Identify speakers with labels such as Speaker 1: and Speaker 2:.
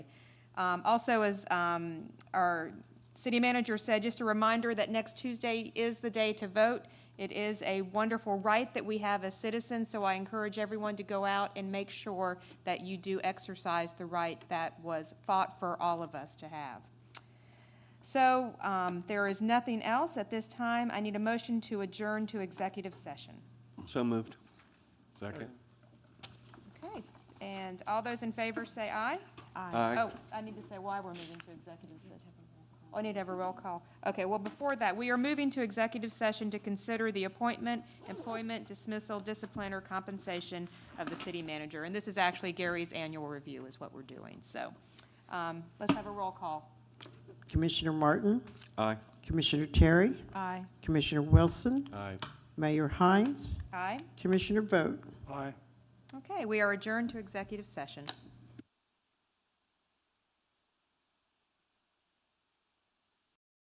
Speaker 1: Um, Also, as um, our city manager said, just a reminder that next Tuesday is the day to vote. It is a wonderful right that we have as citizens, so I encourage everyone to go out and make sure that you do exercise the right that was fought for all of us to have. So um, there is nothing else at this time. I need a motion to adjourn to executive session.
Speaker 2: So moved.
Speaker 3: Second.
Speaker 1: Okay, and all those in favor say aye?
Speaker 2: Aye.
Speaker 1: Oh, I need to say why we're moving to executive session. Oh, I need to have a roll call. Okay, well, before that, we are moving to executive session to consider the appointment, employment, dismissal, discipline, or compensation of the city manager. And this is actually Gary's annual review is what we're doing, so um, let's have a roll call.
Speaker 4: Commissioner Martin,
Speaker 2: Aye.
Speaker 4: Commissioner Terry,
Speaker 1: Aye.
Speaker 4: Commissioner Wilson,
Speaker 3: Aye.
Speaker 4: Mayor Hines,
Speaker 1: Aye?
Speaker 4: Commissioner Vogt.
Speaker 3: Aye.
Speaker 1: Okay, we are adjourned to executive session.